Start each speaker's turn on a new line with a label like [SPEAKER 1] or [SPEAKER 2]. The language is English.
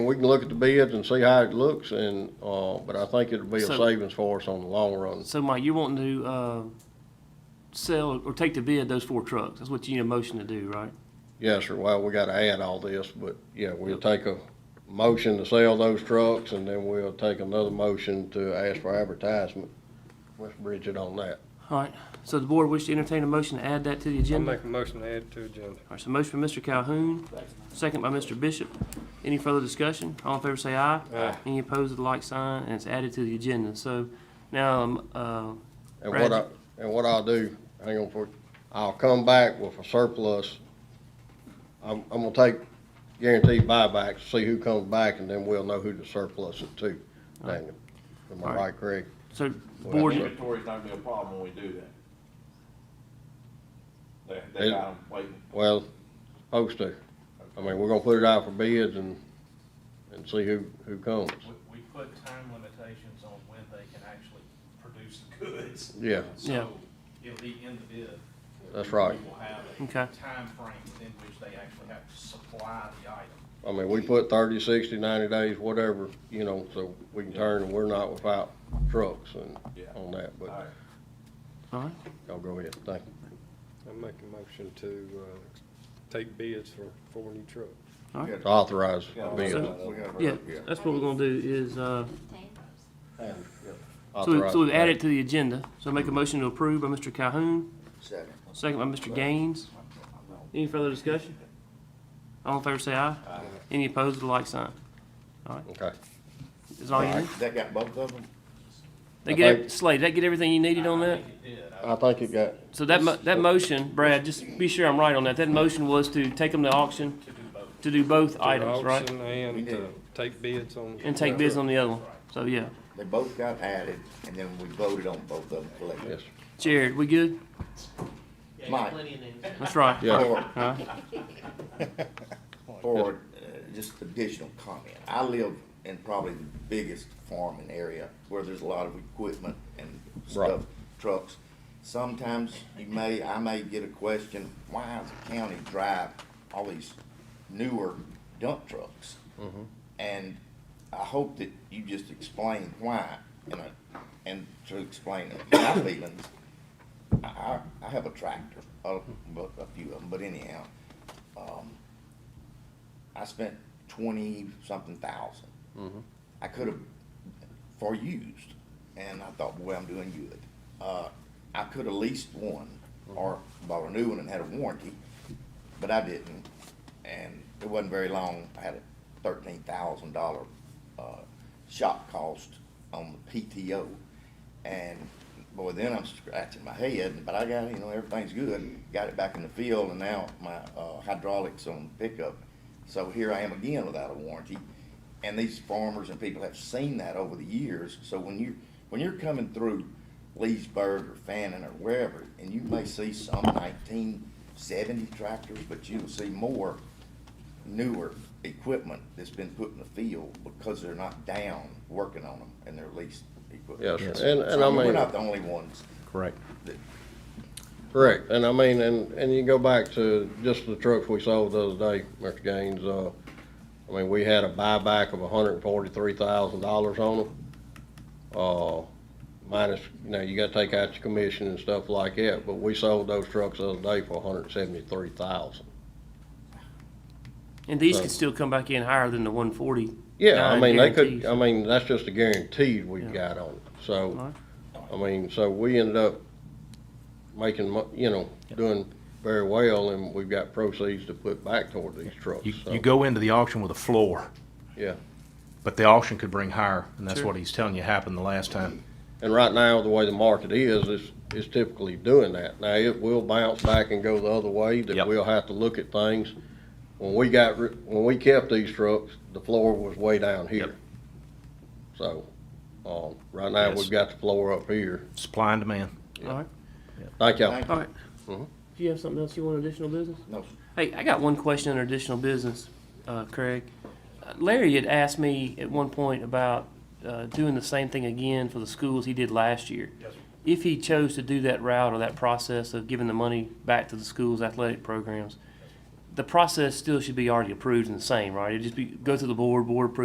[SPEAKER 1] we can look at the bids and see how it looks and, uh, but I think it'll be a
[SPEAKER 2] So-
[SPEAKER 1] savings for us on the long run.
[SPEAKER 2] So Mike, you want to, uh, sell or take to bid those four trucks? That's what you need a motion to do, right?
[SPEAKER 1] Yes, sir. Well, we gotta add all this, but yeah, we'll take a motion to sell those trucks and then we'll take another motion to ask for advertisement. Let's bridge it on that.
[SPEAKER 2] All right, so the board wish to entertain a motion to add that to the
[SPEAKER 3] I'll
[SPEAKER 2] agenda?
[SPEAKER 3] make a motion to add to agenda.
[SPEAKER 2] All right, so motion by Mr. Calhoun, second by Mr. Bishop. Any further discussion? All in favor say aye.
[SPEAKER 3] Aye.
[SPEAKER 2] Any opposed, the like sign, and it's added to the agenda. So now, um, uh,
[SPEAKER 1] And what I,
[SPEAKER 2] Roger.
[SPEAKER 1] and what I'll do, hang on for, I'll come back with a surplus. I'm, I'm gonna take guaranteed buybacks, see who comes back, and then we'll know who to surplus it to, Daniel. Am I
[SPEAKER 2] Alright.
[SPEAKER 1] right, Craig?
[SPEAKER 2] so
[SPEAKER 1] Well,
[SPEAKER 2] board,
[SPEAKER 4] Inventory's not gonna be a problem when we do that. They, they got 'em waiting.
[SPEAKER 1] Well, supposed to. I mean, we're gonna put it out for bids and, and see who, who comes.
[SPEAKER 5] We, we put time limitations on when they can actually produce the goods.
[SPEAKER 1] Yeah,
[SPEAKER 2] Yeah.
[SPEAKER 5] So it'll be in the bid.
[SPEAKER 1] That's right.
[SPEAKER 5] We will have a
[SPEAKER 2] Okay.
[SPEAKER 5] timeframe within which they actually have to supply the item.
[SPEAKER 1] I mean, we put thirty, sixty, ninety days, whatever, you know, so we can turn, and we're not without trucks and
[SPEAKER 4] Yeah.
[SPEAKER 1] on that,
[SPEAKER 4] Alright,
[SPEAKER 1] but
[SPEAKER 2] all right,
[SPEAKER 1] y'all go ahead, thank you.
[SPEAKER 3] I'll make a motion to, uh, take bids for four new trucks.
[SPEAKER 2] all right.
[SPEAKER 1] Authorize bids.
[SPEAKER 2] Yeah, that's what we're gonna do is, uh, so we-
[SPEAKER 1] Authorize.
[SPEAKER 2] so we've added to the agenda. So make a motion to approve by Mr. Calhoun,
[SPEAKER 4] Second.
[SPEAKER 2] second by Mr. Gaines. Any further discussion? All in favor say aye. Any opposed, the like sign.
[SPEAKER 1] Okay.
[SPEAKER 2] Is all you need?
[SPEAKER 4] That got both of them?
[SPEAKER 2] They
[SPEAKER 1] I
[SPEAKER 2] get,
[SPEAKER 1] think-
[SPEAKER 2] Slade, that get everything you needed on
[SPEAKER 5] I
[SPEAKER 2] that?
[SPEAKER 5] think it did. I-
[SPEAKER 1] I think it got,
[SPEAKER 2] So that, mo- that motion, Brad, just be sure I'm right on that, that motion was to take them to auction,
[SPEAKER 5] To do both.
[SPEAKER 2] to do both
[SPEAKER 3] To
[SPEAKER 2] items, right?
[SPEAKER 3] auction And, uh, take bids on.
[SPEAKER 2] And take bids on the other one, so yeah.
[SPEAKER 6] They both got added, and then we voted on both of them collectively.
[SPEAKER 1] yes,
[SPEAKER 2] Jared, we good?
[SPEAKER 6] Mike,
[SPEAKER 2] That's right.
[SPEAKER 1] yeah,
[SPEAKER 6] for,
[SPEAKER 2] Huh?
[SPEAKER 6] for uh, just additional comment, I live in probably the biggest farming area where there's a lot of equipment and stuff,
[SPEAKER 1] Right.
[SPEAKER 6] trucks. Sometimes you may, I may get a question, why is the county drive all these newer dump trucks? And I hope that you just explain why, and, I- and to explain my feelings, I, I, I have a tractor, a, but a few of them, but anyhow, um, I spent twenty-something 1000 I could have, for used, and I thought, boy, I'm doing good. Uh, I could have leased one, or bought a new one and had a warranty, but I didn't, and it wasn't very long, I had a thirteen thousand dollar, uh, shop cost on the PTO. And boy, then I'm scratching my head, but I got, you know, everything's good, got it back in the field, and now my, uh, hydraulics on pickup. So here I am again without a warranty, and these farmers and people have seen that over the years, so when you, when you're coming through Leesburg or Fannin or wherever, and you may see some nineteen seventy tractors, but you'll see more newer equipment that's been put in the field because they're not down working on them and they're leased equipment.
[SPEAKER 1] yes, sir. and, and I
[SPEAKER 6] So We're
[SPEAKER 1] mean,
[SPEAKER 6] not the only ones.
[SPEAKER 7] Correct.
[SPEAKER 1] correct, and I mean, and, and you go back to just the trucks we sold the other day, Mr. Gaines, uh, I mean, we had a buyback of hundred and forty-three thousand dollars on them. Uh, minus, you know, you gotta take out your commission and stuff like that, but we sold those trucks the other day for hundred and seventy-three thousand.
[SPEAKER 2] And these could still come back in higher than the one forty.
[SPEAKER 1] Yeah, I
[SPEAKER 2] Nine
[SPEAKER 1] mean, they could, um,
[SPEAKER 2] guarantees.
[SPEAKER 1] I mean, that's just the guarantees we've
[SPEAKER 2] Yeah.
[SPEAKER 1] got on it, so,
[SPEAKER 2] Alright.
[SPEAKER 1] I mean, so we ended up making, mo- you know, doing very well, and we've got proceeds to put back toward these trucks,
[SPEAKER 7] You,
[SPEAKER 1] so,
[SPEAKER 7] you go into the auction with a floor,
[SPEAKER 1] yeah.
[SPEAKER 7] but the auction could bring higher, and that's
[SPEAKER 2] Sure.
[SPEAKER 7] what he's telling you happened the last time.
[SPEAKER 1] And right now, the way the market is, is, is typically doing that. Now, it will bounce back and go the other way, that
[SPEAKER 7] Yep.
[SPEAKER 1] we'll have to look at things. When we got, ri- when we kept these trucks, the floor was way down
[SPEAKER 7] Yep.
[SPEAKER 1] here. So, um, right now,
[SPEAKER 7] Yes.
[SPEAKER 1] we've got the floor up here.
[SPEAKER 7] Supply and demand.
[SPEAKER 2] All right,
[SPEAKER 1] Thank y'all.
[SPEAKER 6] Thank
[SPEAKER 2] all right.
[SPEAKER 1] Mhm.
[SPEAKER 2] Do you have something else you want additional business?
[SPEAKER 6] No,
[SPEAKER 2] Hey, I got one question under additional business, uh, Craig. Uh, Larry had asked me at one point about, uh, doing the same thing again for the schools he did last year.
[SPEAKER 5] Yes, sir.
[SPEAKER 2] If he chose to do that route or that process of giving the money back to the school's athletic programs, the process still should be already approved and the same, right? It'd just be, go to the board, board approves